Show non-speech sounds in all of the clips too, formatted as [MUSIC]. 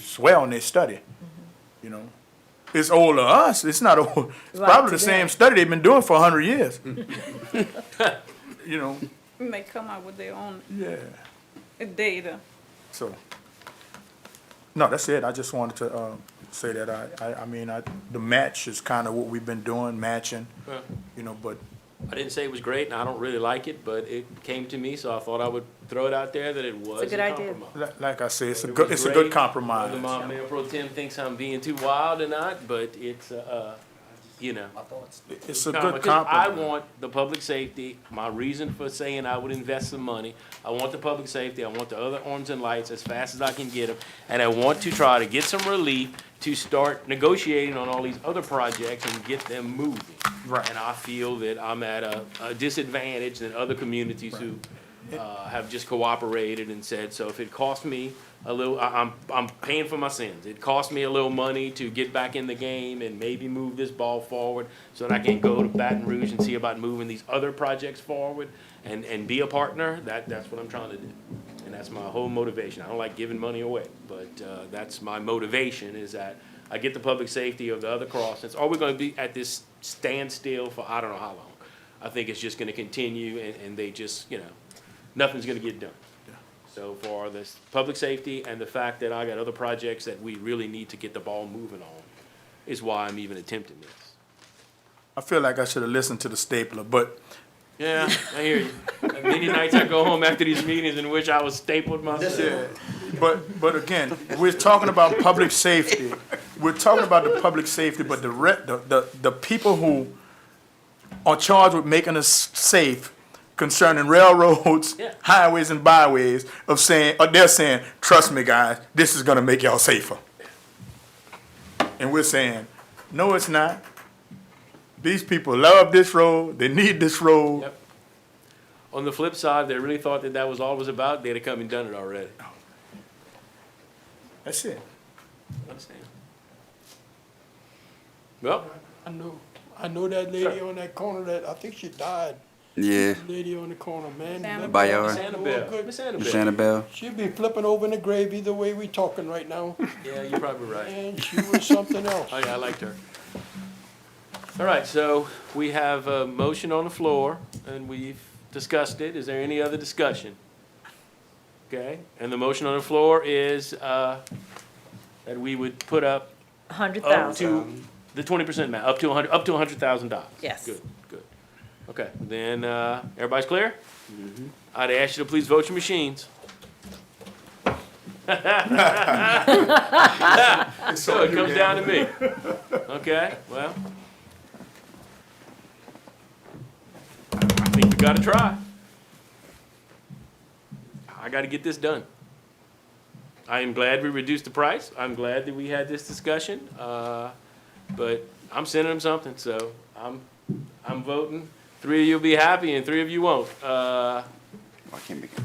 swear on their study, you know? It's old to us, it's not old, it's Right, probably the today. same study they've been doing for a hundred [LAUGHS] years. [LAUGHS] You know, And they come out with their own yeah, data. so. No, that's it, I just wanted to, um, say that, I, I, I mean, I, the match is kinda what we've been doing, matching, Well, you know, but I didn't say it was great, and I don't really like it, but it came to me, so I thought I would throw it out there that it was good a idea. compromise. li- like I say, it's a It good, was it's a great. good compromise. Whether my mayor pro tem thinks I'm being too wild or not, but it's, uh, you know. It's a No, good because I compromise. want the public safety, my reason for saying I would invest some money, I want the public safety, I want the other arms and lights as fast as I can get them. And I want to try to get some relief to start negotiating on all these other projects and get them moving. Right. And I feel that I'm at a, a disadvantage than other communities who, uh, have just cooperated and said, so if it costs me a little, I, I'm, I'm paying for my sins. It cost me a little money to get back in the game and maybe move this ball forward so that I can go to Baton Rouge and see about moving these other projects forward and, and be a partner. That, that's what I'm trying to do. And that's my whole motivation. I don't like giving money away, but, uh, that's my motivation is that I get the public safety of the other crossings. Are we gonna be at this standstill for I don't know how long? I think it's just gonna continue and, and they just, you know, nothing's gonna get done. So for this public safety and the fact that I got other projects that we really need to get the ball moving on is why I'm even attempting this. I feel like I should have listened to the stapler, but Yeah, I hear you. [LAUGHS] Many nights I go home after these meetings in which I was stapled myself. Yeah, but, but again, we're talking about public safety. We're talking about the public safety, but the re, the, the, the people who are charged with making us safe concerning railroads, Yeah. highways and byways of saying, uh, they're saying, trust me, guys, this is gonna make y'all safer. And we're saying, no, it's not. These people love this road, they need this road. Yep. On the flip side, they really thought that that was all it was about, they'd have come and done it already. That's it. Understand? Well, I know, I know that lady on that corner that, I think she died, Yeah, lady on the corner, man. Annabelle. by Miss your Annabelle, Miss Miss Annabelle. Annabelle. She'd be flipping over in the grave either way we talking right now, Yeah, you're probably right. and she was something else. Oh, yeah, I liked her. All right, so we have a motion on the floor, and we've discussed it. Is there any other discussion? Okay, and the motion on the floor is uh, that we would put up Hundred up thousand. to the twenty percent amount, up to a hundred, up to a hundred thousand dollars. Yes. Good, good. Okay, then, uh, everybody's clear? I'd ask you to please vote your machines. So it comes down to me. [LAUGHS] Okay, well. I think we gotta try. I gotta get this done. I am glad we reduced the price. I'm glad that we had this discussion. Uh, but I'm sending them something, so I'm, I'm voting. Three of you'll be happy and three of you won't. Uh, I can't make it.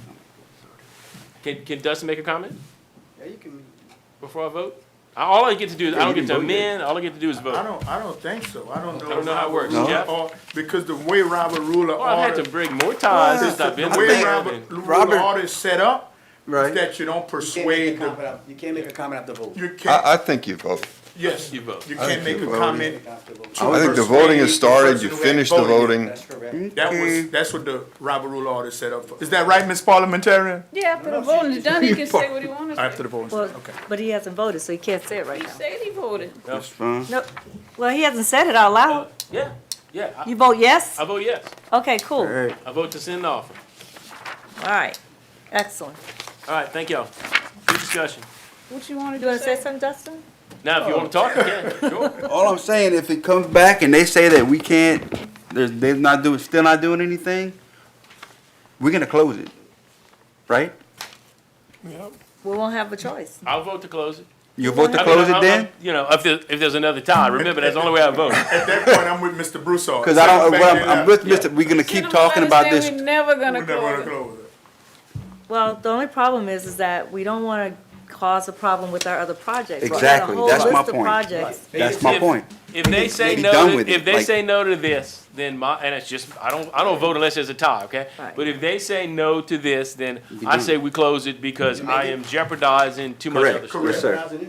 can, can Dustin make a comment Yeah, you can. before I vote? I- All I get to do, is I don't you get to can vote, yeah. amend, all I get to do is I vote. don't, I don't think so. I don't know. don't know how it works. Robert No? Rule of Or, because the way Robert Rule of Well, I've Order. had to break more ties since I've been The to way think- Robert Robin. Rule of Robert- Order is set up, is Right. that you don't You can't make a persuade comment the, after- you can't make a comment after vote. you can't, I, I think you vote. yes, You you vote. can't make a vote. comment. After vote. to I think the persuade voting has the started, person you who ain't finish the voting. That's correct. That was, that's what the Robert Rule of Order is set up for. Is that right, Ms. Parliamentarian? Yeah, after the voting is done, he can say what he wants to After say. the voting, Well, okay. but he hasn't voted, so he can't say it right He now. said he voted. That's fine. No, well, he hasn't said it out loud. Uh, Yeah, yeah, I, You vote yes? Uh, I vote yes. Okay, cool. All Hey, I vote to send the offer. right. Excellent. All right, thank y'all. Good discussion. What you wanted You wanna to say say? something, Dustin? Now, if you want to talk, you can, sure. all I'm saying, if it comes back and they say that we can't, they're, they're not doing, still not doing anything, we're gonna close it, right? Yep. We won't have a choice. I'll vote to close it. You vote to I mean, close I- I- it then? You know, if there, if there's another tie, remember, that's the only way I vote. At that point, I'm with Mr. Broussard. Cause I don't, Send well, it I'm, I'm back with Mr., we're gonna Send keep him a talking letter about saying this. we never in gonna there. We're never close it. gonna close it. Well, the only problem is, is that we don't wanna cause a problem with our other projects. We've got a Exactly. whole That's my list of point. Projects. That's my If- point. If they say be no, done to- with if it, they like- say no to this, then my, and it's just, I don't, I don't vote unless there's a tie, okay? Right. But if they say no to this, then Be I done. say we close it because I am jeopardizing too much Correct. other stuff. Yes, sir.